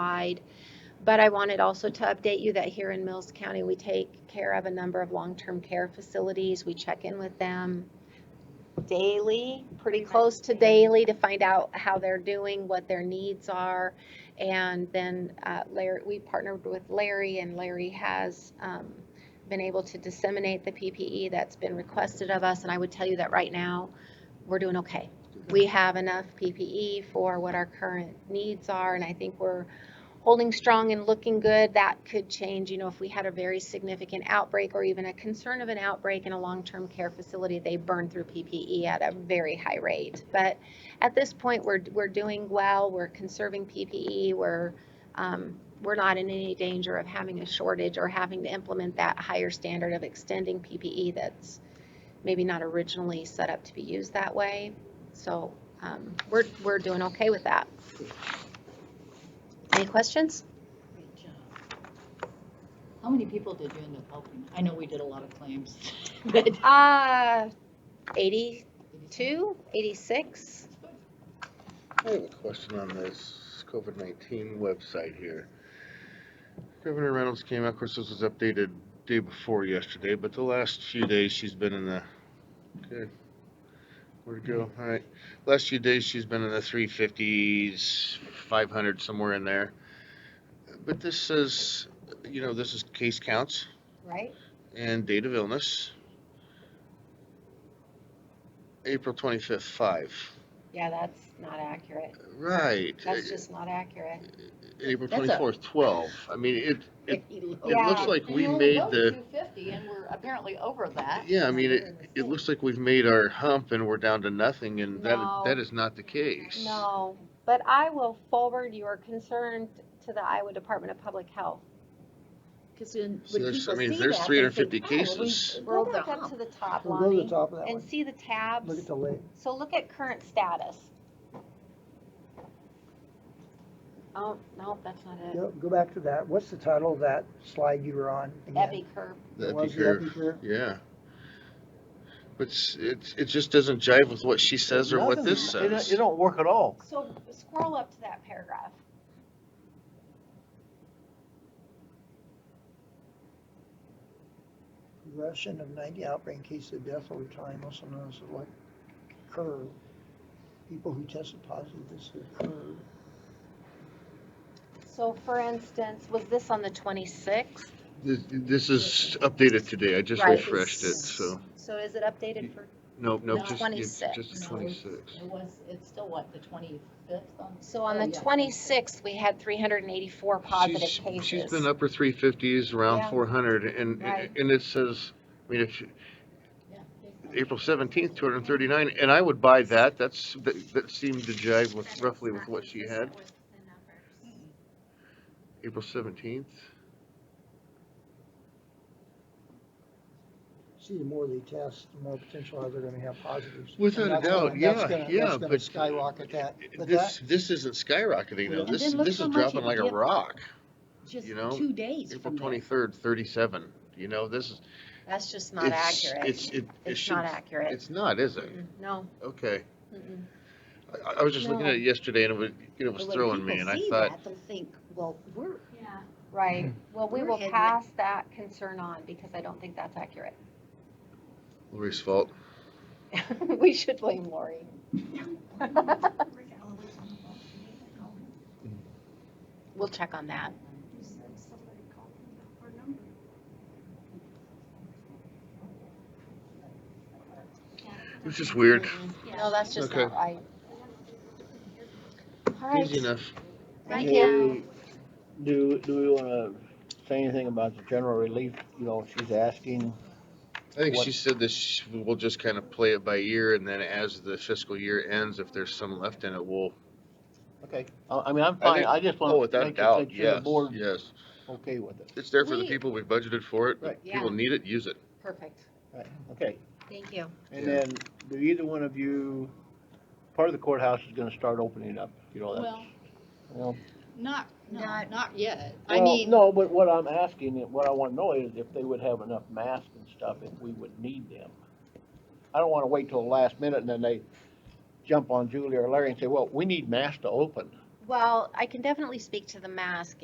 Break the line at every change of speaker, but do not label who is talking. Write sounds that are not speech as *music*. wide. But I wanted also to update you that here in Mills County, we take care of a number of long-term care facilities. We check in with them daily, pretty close to daily, to find out how they're doing, what their needs are. And then uh, Larry, we partnered with Larry, and Larry has um, been able to disseminate the PPE that's been requested of us. And I would tell you that right now, we're doing okay. We have enough PPE for what our current needs are, and I think we're holding strong and looking good. That could change, you know, if we had a very significant outbreak or even a concern of an outbreak in a long-term care facility, they burn through PPE at a very high rate. But at this point, we're, we're doing well, we're conserving PPE, we're, um, we're not in any danger of having a shortage or having to implement that higher standard of extending PPE that's maybe not originally set up to be used that way. So, um, we're, we're doing okay with that. Any questions?
Great job. How many people did you end up helping? I know we did a lot of claims, *laughs* but.
Uh, 82, 86?
I have a question on this COVID nineteen website here. Governor Reynolds came out, of course, this was updated day before yesterday, but the last few days she's been in the, okay. Where'd it go?
Mm-hmm.
Alright, last few days she's been in the three fifties, five hundred, somewhere in there. But this says, you know, this is case counts
Right.
and date of illness. April twenty-fifth, five.
Yeah, that's not accurate.
Right.
That's just not accurate.
April
That's a-
twenty-fourth, twelve, I mean, it, it, it
Yeah.
looks like we made the,
Two fifty and we're apparently over that.
yeah, I mean, it, it looks like we've made our hump and we're down to nothing, and that,
No.
that is not the case.
No, but I will forward your concern to the Iowa Department of Public Health.
Cause then.
So
when
there's- I
people
mean,
see
there's
that, they
350
think, "Oh, well, we
cases."
Go
rolled the
back up to
hump."
the top,
We'll go to the
Lonnie,
top of that
and
one.
see the
Look at
tabs.
the lake.
So look at current status. Oh, no, that's not it.
Go, go back to that. What's the title of that slide you were on? again?
Ebby curve.
That'd be
Was the
curve,
epicure?
yeah. But it's, it's, it just doesn't jive with what she says or what
Nothing.
this
It don't-
says.
It don't work at all.
So scroll up to that paragraph.
Progression of ninety outbreak cases of death over time, also known as the like curve. People who tested positive, this is a curve.
So for instance, was this on the twenty-sixth?
This, this is updated today, I just
Right.
refreshed it, so,
So is it updated for,
nope, nope,
No.
just, it's just the
No, it's-
twenty-sixth.
It was, it's still what, the twenty-fifth on?
so on
Oh,
the
yeah.
twenty-sixth, we had three hundred and eighty-four positive
She's- She's
cases.
been upper three fifties,
Yeah.
around four hundred, and,
Right.
and it says, I mean, if,
Yeah.
April seventeenth, two hundred and thirty-nine, and I would buy that, that's, that, that seemed to jive with, roughly with what she had, April seventeenth.
See, the more they test, the more potential are they're gonna have positives.
Without
And
a
that's gonna-
doubt,
that's
yeah,
gonna-
yeah,
That's gonna
but
skyrocket that, but
This,
that,
this isn't skyrocketing though,
And
this,
then look
this
how
is
much it
dropping like a
dipped
rock,
Just
you know,
two days
April
from there.
twenty-third, thirty-seven, you know, this is.
That's just not
it's-
accurate.
It's, it, it
It's
should,
not accurate.
it's not, is it?
Mm-mm, No.
Okay,
mm-mm.
I- I, I was just looking at it yesterday and it was, you know, it was
But when
throwing me
people
and I
see
thought,
that, They'll think, well, we're,
Right.
Mm-hmm.
Well, we
We're
will
heading-
pass that concern on because I don't think that's accurate. *laughs*
Lori's fault.
We should blame Lori. We'll check on that.
It was just weird,
No, that's just
Okay.
not right. All right.
easy enough.
Thank
Do-
you.
Do, do we wanna say anything about the general relief, you know, she's asking?
I think
what-
she said that sh- we'll just kind of play it by ear, and then as the fiscal year ends, if there's some left in it, we'll.
Okay. I, I mean, I'm
I
fine,
think-
I just
Oh,
wanna
without
make sure
doubt,
make sure the
yes,
board
yes.
okay with it.
It's there for the
We-
people, we budgeted for it,
Right.
if people
Yeah.
need it, use it.
Perfect.
Right, okay.
Thank you.
And
Yeah.
then, do either one of you, part of the courthouse is gonna start opening up, you know, that's,
Well,
you know.
not, no,
Not-
not yet. I
Well,
mean,
No, but what I'm asking, what I wanna know is if they would have enough masks and stuff, if we would need them. I don't wanna wait till the last minute and then they jump on Julie or Larry and say, well, we need masks to open.
Well, I can definitely speak to the mask